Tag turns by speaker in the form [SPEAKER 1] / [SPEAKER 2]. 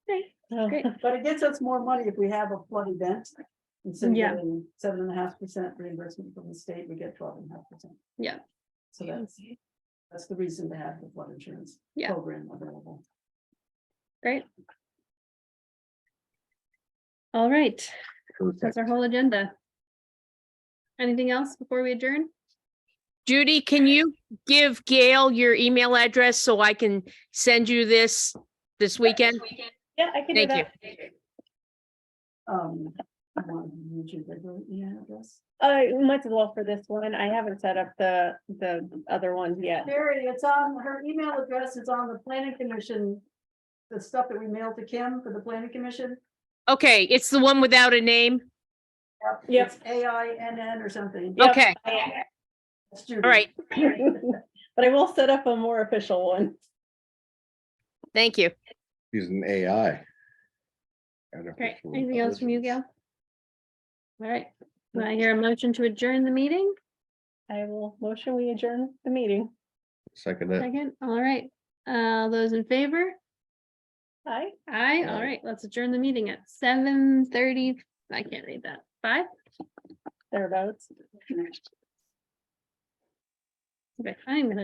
[SPEAKER 1] Great.
[SPEAKER 2] But it gets us more money if we have a flood event. Instead of
[SPEAKER 1] Yeah.
[SPEAKER 2] getting seven and a half percent reimbursement from the state, we get twelve and a half percent.
[SPEAKER 1] Yeah.
[SPEAKER 2] So that's, that's the reason to have the flood insurance.
[SPEAKER 1] Yeah.
[SPEAKER 2] Program available.
[SPEAKER 1] All right,
[SPEAKER 3] Perfect.
[SPEAKER 1] that's our whole agenda. Anything else before we adjourn?
[SPEAKER 4] Judy, can you give Gail your email address so I can send you this this weekend?
[SPEAKER 1] Yeah, I can
[SPEAKER 4] do Thank that.
[SPEAKER 2] Um, I want to use your regular email address.
[SPEAKER 1] Uh, might as well for this one. I haven't set up the, the other ones yet.
[SPEAKER 2] Mary, it's on, her email address is on the planning commission. The stuff that we mailed to Kim for the planning commission.
[SPEAKER 4] Okay, it's the one without a name.
[SPEAKER 1] Yep.
[SPEAKER 2] It's A I N N or something.
[SPEAKER 1] Yep.
[SPEAKER 4] Okay,
[SPEAKER 2] That's Judy.
[SPEAKER 4] all right.
[SPEAKER 1] But I will set up a more official one.
[SPEAKER 4] Thank you.
[SPEAKER 3] Using AI.
[SPEAKER 1] Great.
[SPEAKER 3] Artificial
[SPEAKER 1] Anything else from you, Gail?
[SPEAKER 3] intelligence.
[SPEAKER 1] All right, Will I hear a motion to adjourn the meeting?
[SPEAKER 5] I will motion we adjourn the meeting.
[SPEAKER 3] Second, it.
[SPEAKER 1] Second, all right. Uh, those in favor?
[SPEAKER 5] Aye.
[SPEAKER 1] Aye, all
[SPEAKER 3] Aye.
[SPEAKER 1] right, let's adjourn the meeting at seven thirty. I can't read that. Five?
[SPEAKER 5] thereabouts.
[SPEAKER 1] Okay, I'm gonna